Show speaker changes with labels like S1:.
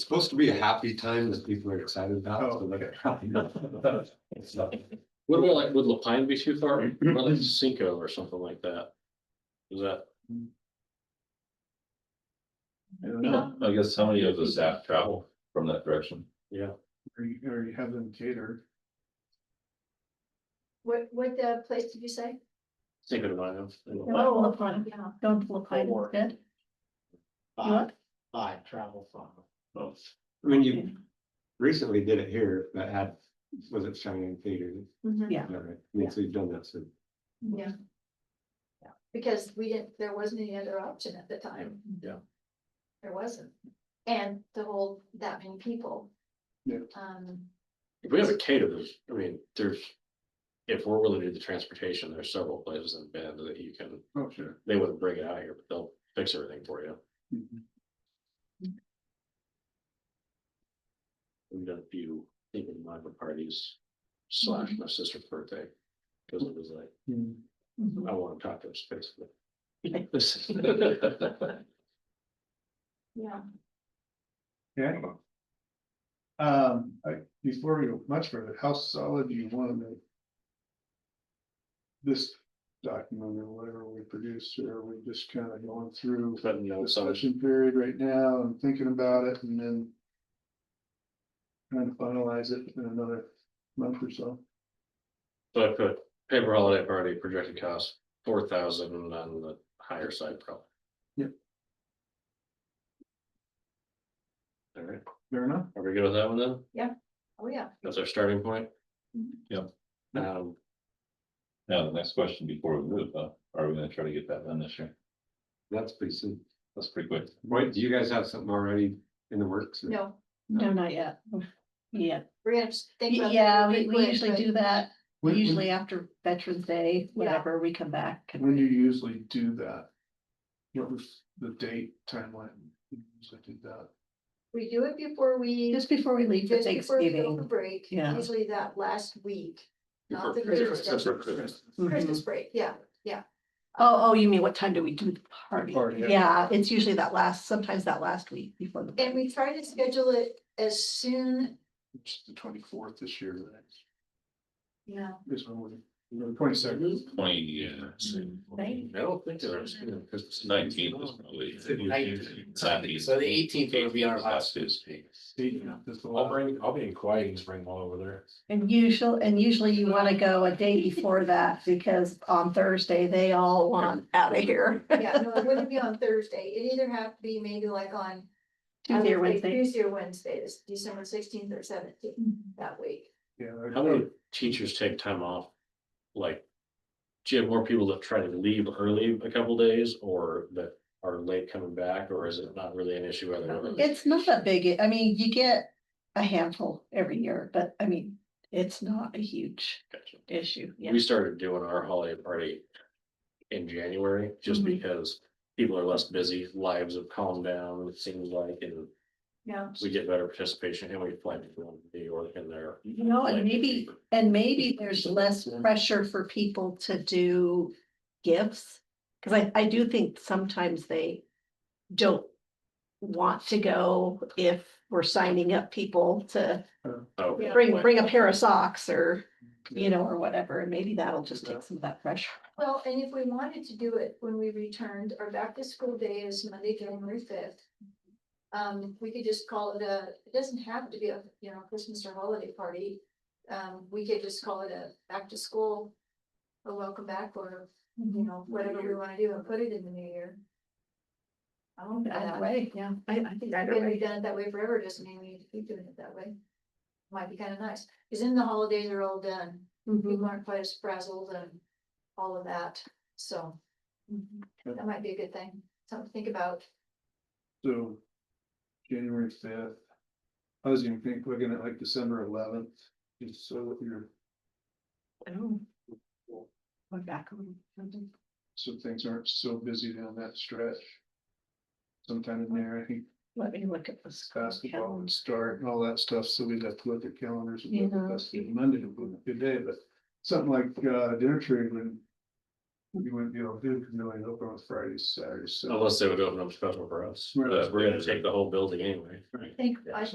S1: It's supposed to be a happy time that people are excited about, so
S2: Oh,
S1: like.
S2: okay.
S1: probably not. It's not-
S3: What about like, would Lapine be too far? Or like Cinco or something like that? Is that?
S2: I don't know.
S4: No, I guess how many of the staff travel from that direction?
S2: Or you, or you have them catered.
S5: What, what uh, place did you say?
S3: Cinco de Mayo.
S5: Oh,
S6: Don't look on,
S5: Yeah.
S6: don't look on
S7: Or-
S6: it. You
S7: Five,
S6: what?
S7: five travel from.
S4: Oh,
S1: I mean, you recently did it here, that had, was it Cheyenne Theater?
S5: Mhm.
S6: Yeah.
S1: All right, I mean, so you've done that, so.
S5: Yeah. Because we didn't, there wasn't any other option at the time.
S3: Yeah.
S5: There wasn't. And the whole, that many people.
S2: Yeah.
S5: Um,
S3: If we have a caterer, I mean, there's. If we're willing to do the transportation, there's several places in Bend that you can,
S2: Oh, sure.
S3: they wouldn't bring it out here, but they'll fix everything for you.
S2: Mhm.
S3: We've done a few, even my parties slash
S1: Mm-hmm.
S3: my sister's birthday. Cause it was like,
S2: Mm-hmm.
S6: Mhm.
S3: I wanna talk to his face.
S5: yeah,
S2: Okay. Um, I- before we go much further, how solid do you want to make? This document or whatever we produce, or are we just kind of going through
S3: But no, so
S2: discussion period right now and thinking about it and then. Trying to finalize it in another month or so.
S3: So I put paper holiday party projected cost four thousand on the higher side probably.
S2: Yep.
S3: All right,
S2: Fair enough?
S3: are we good with that one then?
S5: oh, yeah.
S3: That's our starting point?
S1: Mm-hmm.
S4: Yep.
S3: Um,
S4: Now, the next question before we move, huh? Are we gonna try to get that done this year?
S1: That's pretty soon.
S4: That's pretty quick.
S1: Wait, do you guys have something already in the works? or-
S5: No,
S6: No, not yet. Yeah,
S5: we're gonna just think about. it
S6: yeah,
S5: really
S6: we, we
S5: quick,
S6: usually
S5: but
S6: do that,
S2: When- when-
S6: usually after Veterans Day, whenever we come back. and
S2: When do you usually do that? What was the date timeline? You usually do that?
S5: We do it before we.
S6: Just before we leave for
S5: just before we go for
S6: Thanksgiving.
S5: Break,
S6: Yeah.
S5: usually that last week,
S3: before
S5: not the
S3: Christmas,
S5: Thursday.
S3: before Christmas.
S5: Christmas
S6: Mhm.
S5: break, yeah, yeah.
S6: Oh, oh, you mean what time do we do the party?
S2: Party, yeah.
S6: Yeah, it's usually that last, sometimes that last week before the.
S5: And we try to schedule it as soon,
S2: Which is the twenty-fourth this year, right?
S5: yeah.
S2: this one, the twenty-second.
S4: Twenty, uh,
S6: Thank
S3: I don't think there's, because it's
S4: nineteen
S3: nineteen.
S4: is probably.
S7: So the eighteenth will be our last.
S4: Tuesday.
S3: I'll bring, I'll be in Kauai and just bring one over there.
S6: And usually, and usually you want to go a day before that because on Thursday, they all want out of here.
S5: Yeah, no, it wouldn't be on Thursday. It'd either have to be maybe like on. I
S6: Tuesday or
S5: would say
S6: Wednesday.
S5: Tuesday or Wednesday, this December sixteenth or seventeenth that week.
S2: Yeah,
S3: How many teachers take time off? Like, do you have more people that try to leave early a couple days or that are late coming back, or is it not really an issue? whether or not?
S6: It's not a big, I mean, you get a handful every year, but I mean, it's not a huge
S3: Gotcha.
S6: issue. Yeah.
S3: We started doing our holiday party in January, just
S6: Mhm.
S3: because people are less busy, lives have calmed down, it seems like, and
S5: Yeah.
S3: we get better participation and we plan to go to New York in there.
S6: You know, and maybe, and maybe there's less pressure for people to do gifts. Cause I, I do think sometimes they don't want to go if we're signing up people to
S3: Oh,
S5: Yeah.
S6: bring, bring a pair of socks or, you know, or whatever. And maybe that'll just take some of that pressure.
S5: Well, and if we wanted to do it when we returned, our back to school day is Monday, January fifth. Um, we could just call it a, it doesn't have to be a, you know, Christmas or holiday party. Um, we could just call it a back to school, a welcome back or,
S6: Mm-hmm.
S5: you know, whatever we wanna do and put it in the new year. I don't
S6: Either way, yeah, I, I think either
S5: And
S6: way.
S5: we've done it that way forever, doesn't mean we need to keep doing it that way. Might be kind of nice, because then the holidays are all done,
S6: Mhm.
S5: people aren't quite as frazzled and all of that, so
S6: Mm-hmm.
S5: that might be a good thing, something to think about.
S2: So, January fifth. I was gonna think, looking at like December eleventh, just so that you're,
S6: Oh. We're back a little.
S2: so things aren't so busy down that stretch. Sometime in there, I think
S6: Let me look at this.
S2: basketball would start and all that stuff, so we'd have to look at calendars. and
S6: You
S2: look at
S6: know.
S2: this, and Monday would be a good day, but something like uh dinner trade would You wouldn't be able to do, because no, you open on Fridays, Saturdays, so.
S3: Oh, unless they would open up special for us,
S2: Right.
S3: but we're gonna take the whole building anyway.
S5: I think I